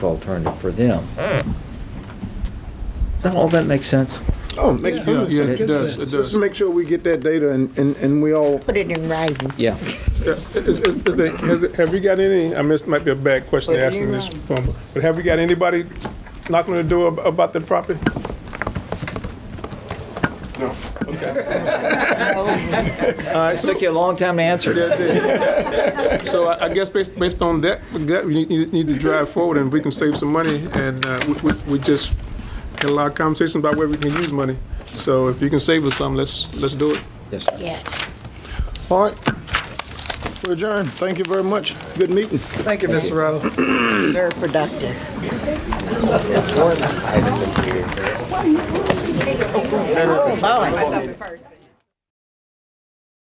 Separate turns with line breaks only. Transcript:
alternative for them. Does that, all that make sense?
Oh, it makes perfect
Yeah,
sense.
it does, it
Just
does.
to make sure we get that data and, and, and we all,
Put it in writing.
Yeah.
Yeah, Is, is, is there, has, there- have you got any, I mean, this might be a bad question to
Put it
ask in
in
this
writing.
form, but have we got anybody knocking on the door ab- about the property? No, okay. All right, so,
Took you a long time to answer.
yeah, yeah. so I, I guess based, based on that, we got- we need, need to drive forward and we can save some money and, uh, we, we, we just had a lot of conversations about where we can use money. So if you can save us some, let's, let's do it.
Yes.
Yeah.
all right. We're adjourned. Thank you very much. Good meeting.
Thank you, Ms. Rowe.
Very productive. Oh, boy.